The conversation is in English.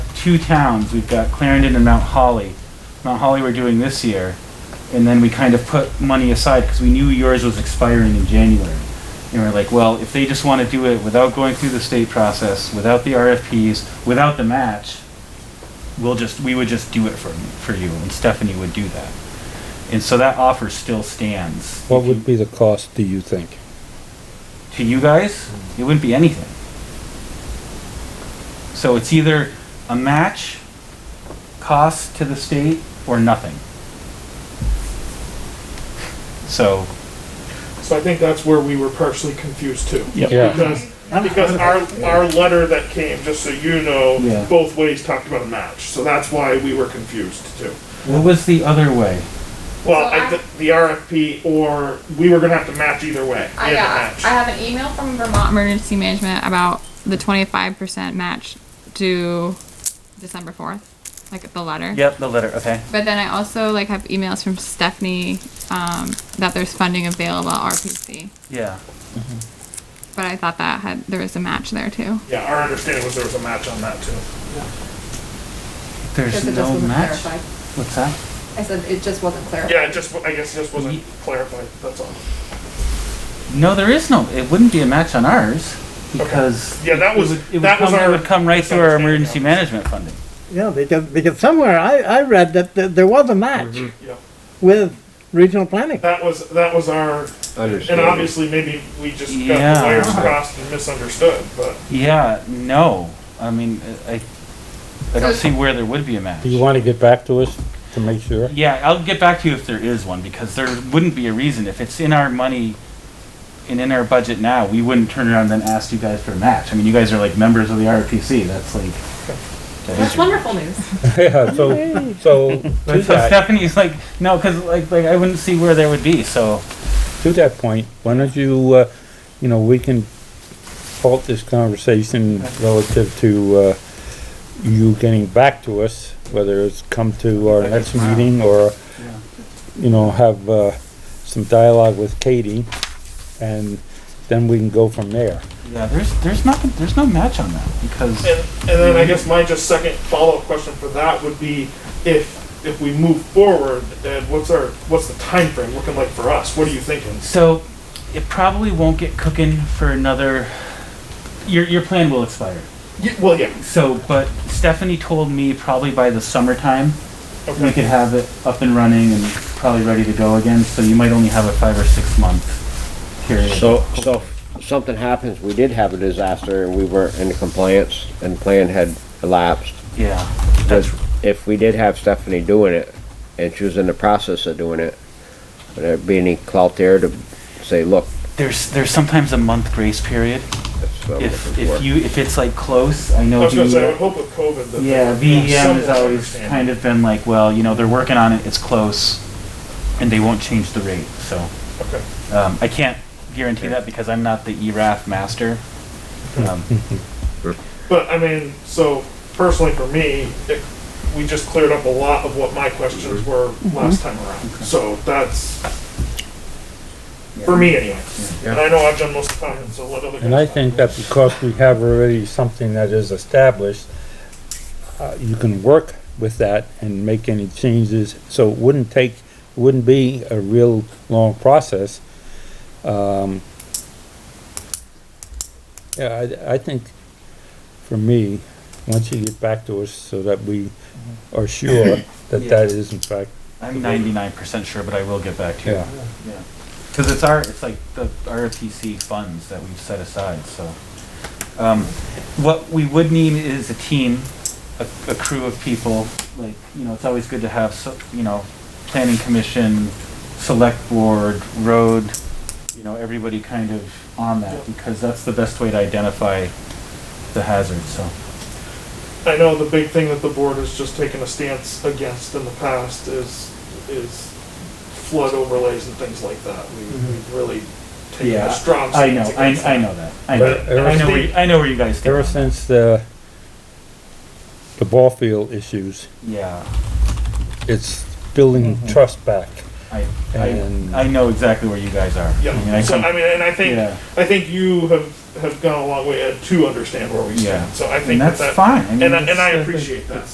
two towns. We've got Clarendon and Mount Holly. Mount Holly we're doing this year, and then we kind of put money aside because we knew yours was expiring in January. And we're like, well, if they just want to do it without going through the state process, without the RFPs, without the match, we'll just, we would just do it for, for you, and Stephanie would do that. And so that offer still stands. What would be the cost, do you think? to you guys, it wouldn't be anything. So it's either a match, cost to the state, or nothing. So, So I think that's where we were partially confused too. Yeah, Because, because our, our letter that came, just so you Yeah. know, both ways talked about a match, so that's why we were confused too. what was the other way? Well, So I, thi- the RFP or, we were gonna have to match either way. We I had to got, I match. have an email from Vermont Emergency Management about the twenty-five percent match due December fourth, like the letter. Yep, the letter, okay. But then I also like have emails from Stephanie, um, that there's funding available at RPC. Yeah. But I thought that had, there was a match there too. Yeah, our understanding was there was a match on that too. There's Because it just no wasn't match? clarified. What's that? I said it just wasn't clarified. Yeah, it just, I guess it just wasn't clarified, that's all. No, there is no, it wouldn't be a match on ours, because. Yeah, that it was- would- it would that was come- It our would come right through our misunderstanding, emergency yeah. management funding. Yeah, because, because somewhere I, I read that, that there was a match Yeah. with regional planning. That was, that was our, and obviously maybe we just got Yeah. the wires crossed and misunderstood, but. Yeah, no, I mean, I, I don't see where there would be a match. do you wanna get back to us to make sure? Yeah, I'll get back to you if there is one, because there wouldn't be a reason. If it's in our money and in our budget now, we wouldn't turn around and ask you guys for a match. I mean, you guys are like members of the RPC, that's like. that is That's your- wonderful news. Yeah, so, so, to But so that, Stephanie's like, no, cause like, like, I wouldn't see where there would be, so, to that point, why don't you, uh, you know, we can halt this conversation relative to, uh, you getting back to us, whether it's come to our next meeting or, you know, have, uh, some dialogue with Katie, and then we can go from there. yeah, there's, there's nothing, there's no match on that, because, And, and then I guess my just second follow-up question for that would be if, if we move forward, then what's our, what's the time frame looking like for us? What are you thinking? so, it probably won't get cooking for another, your, your plan will expire. Y well, yeah, So, but Stephanie told me probably by the summertime, we could okay. have it up and running and probably ready to go again, so you might only have a five or six month period. So, so if something happens, we did have a disaster and we weren't in compliance and plan had elapsed. Yeah, Because if we did have Stephanie doing it and she was in the process of doing it, would there be any clout there to say, look, there's, there's sometimes a month grace period, that's what I'm if, looking if for? you, if it's like close, I I know. was gonna say, I the- would hope with COVID that. E. Yeah, there's VEM has somewhat always understanding. kind of been like, well, you know, they're working on it, it's close, and they won't change the rate, so. Okay, Um, I can't guarantee that because I'm not the E ERAF master. Um, but I mean, so personally for me, it, we just cleared up a lot of what my questions were last time around, Mm-hmm. so that's, for me anyway. And I know I've done most of the time, so let other guys. And I talk. think that because we have already something that is established, uh, you can work with that and make any changes, so it wouldn't take, wouldn't be a real long process. Um, yeah, I, I think, for me, once you get back to us so that we are sure that that is in fact, I'm ninety-nine percent sure, but I will get back to you. yeah. Yeah, because it's our, it's like the RPC funds that we've set aside, so. Um, what we would need is a team, a, a crew of people, like, you know, it's always good to have, so- you know, planning commission, select board, road, you know, everybody kind of on that, because that's the best way to identify the hazard, so. I know the big thing that the board has just taken a stance against in the past is, is flood overlays and things like that. We, we've really taken Mm-hmm. Yeah, a strong I know, stance I, against I that. know that, I But know, I know where, you- I know where you guys stand. Ever since the, the ball field issues, Yeah, it's building trust back. I, I, And- I know exactly where you guys are. I mean, Yeah, I so come- I mean, and I think, Yeah. I think you have have gone a long way to understand where we Yeah. stand. So I think And that that's that- fine. I mean, And I, it's, and I uh, appreciate that.